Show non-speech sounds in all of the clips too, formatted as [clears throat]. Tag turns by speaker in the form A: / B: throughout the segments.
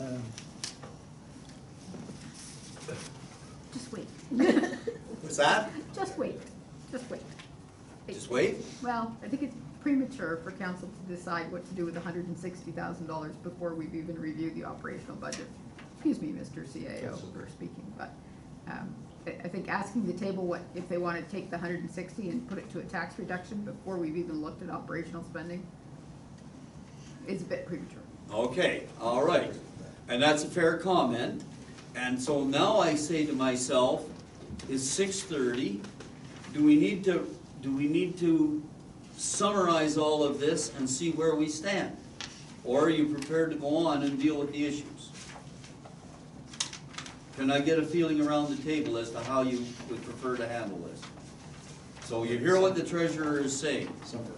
A: Um,
B: Just wait.
A: What's that?
B: Just wait, just wait.
A: Just wait?
B: Well, I think it's premature for council to decide what to do with hundred and sixty thousand dollars before we've even reviewed the operational budget. Excuse me, Mr. CAO for speaking, but, um, I, I think asking the table what, if they wanna take the hundred and sixty and put it to a tax reduction before we've even looked at operational spending is a bit premature.
C: Okay, all right. And that's a fair comment. And so now I say to myself, it's six thirty. Do we need to, do we need to summarize all of this and see where we stand? Or are you prepared to go on and deal with the issues? Can I get a feeling around the table as to how you would prefer to handle this? So you hear what the treasurer is saying.
A: Summarize.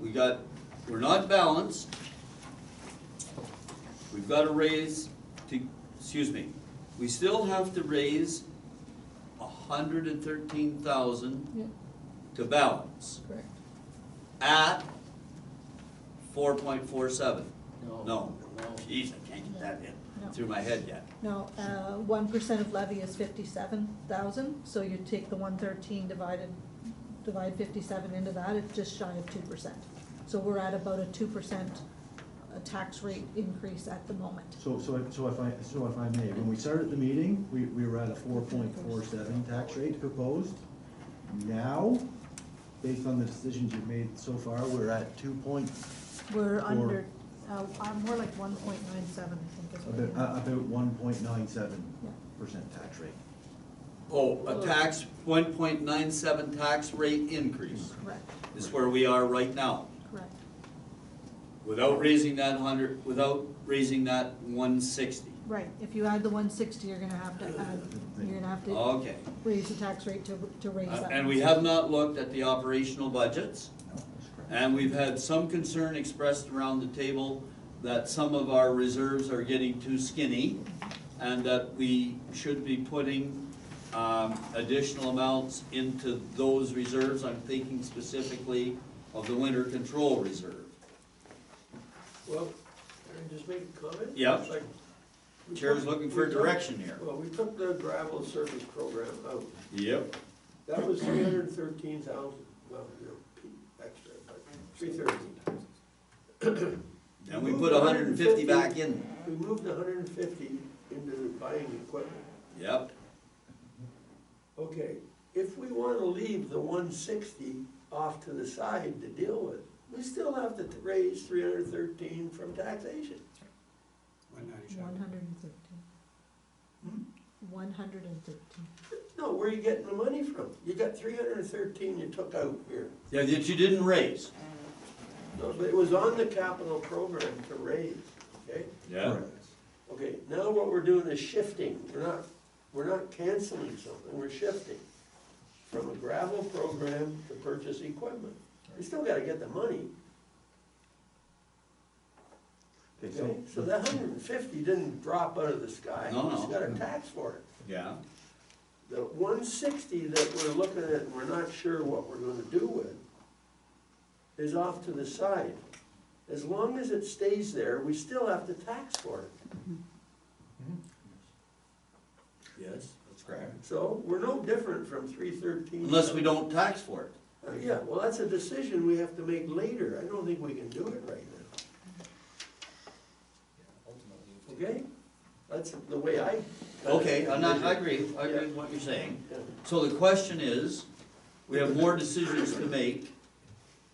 C: We got, we're not balanced. We've got to raise, to, excuse me, we still have to raise a hundred and thirteen thousand to balance. Correct. At four point four seven.
D: No.
C: No.
D: No.
C: Jeez, I can't get that in
E: No.
C: through my head yet.
E: No, uh, one percent of levy is fifty-seven thousand, so you take the one thirteen divided, divide fifty-seven into that, it's just shy of two percent. So we're at about a two percent uh, tax rate increase at the moment.
F: So, so, if- so if I, so if I may, when we started the meeting, we, we were at a four point four seven tax rate proposed. Now, based on the decisions you've made so far, we're at two point,
E: We're
F: Or-
E: under, uh, uh, more like one point nine seven, I think is
F: about,
E: what
F: uh, about one point nine seven percent tax rate.
C: Oh, a tax, one point nine seven tax rate increase
E: it is. Correct,
C: is where we are right now.
E: correct.
C: Without raising that hundred, without raising that one sixty.
E: Right, if you add the one sixty, you're gonna have to add, you're gonna have to
C: Okay.
E: raise the tax rate to, to raise
C: Uh,
E: that.
C: And we have not looked at the operational budgets,
F: No, that's correct.
C: and we've had some concern expressed around the table that some of our reserves are getting too skinny, and that we should be putting um, additional amounts into those reserves. I'm thinking specifically of the winter control reserve.
D: Well, can I just make a comment?
C: Yeah.
D: Like, we
C: Chair's
D: took-
C: looking for
D: we took-
C: direction here.
D: Well, we took the gravel service program out.
C: Yep.
D: That was three hundred and thirteen thousand, well, you know, P, extra, but three thirteen.
C: And we put hundred and fifty back in.
D: [clears throat] We moved hundred and fifty into buying equipment.
C: Yep,
D: Okay, if we wanna leave the one sixty off to the side to deal with, we still have to raise three hundred and thirteen from taxation.
E: One hundred and thirteen. One hundred and thirteen.
D: No, where are you getting the money from? You got three hundred and thirteen you took out here.
C: Yeah, that you didn't raise.
D: No, but it was on the capital program to raise, okay?
C: Yeah.
F: Correct.
D: Okay, now what we're doing is shifting, we're not, we're not canceling something, we're shifting from a gravel program to purchase equipment. We still gotta get the money,
F: Okay,
D: okay?
F: so,
D: So that hundred and fifty didn't drop out of the sky,
C: No,
D: we just
C: no.
D: got a tax for it.
C: Yeah.
D: The one sixty that we're looking at, and we're not sure what we're gonna do with, is off to the side. As long as it stays there, we still have to tax for it.
C: Yes, that's correct.
D: So we're no different from three thirteen.
C: Unless we don't tax for it.
D: Uh, Yeah, well, that's a decision we have to make later. I don't think we can do it right now. Okay? That's the way I.
C: Okay, I'm not, I agree, I agree with what you're saying.
D: Yeah.
C: So the question is, we have more decisions to make,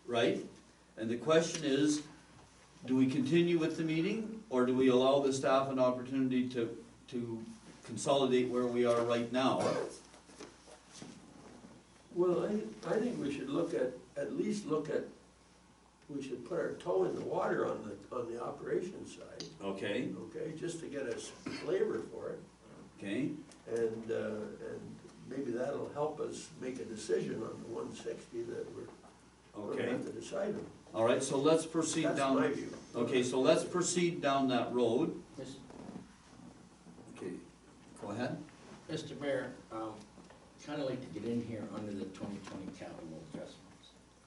C: right? And the question is, do we continue with the meeting, or do we allow the staff an opportunity to, to consolidate where we are right now?
D: Well, I, I think we should look at, at least look at, we should put our toe in the water on the, on the operations side,
C: Okay,
D: okay? Just to get a s- flavor for it.
C: okay,
D: And, uh, and maybe that'll help us make a decision on the one sixty that we're, we're gonna
C: okay.
D: have to decide on.
C: All right, so let's proceed
D: That's
C: down.
D: my view.
C: Okay, so let's proceed down that road. Okay, go ahead.
G: Mr. Mayor, um, kind of like to get in here under the twenty twenty capital adjustments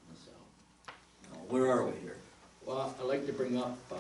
G: myself.
C: Where are we here?
G: Well, I'd like to bring up, uh,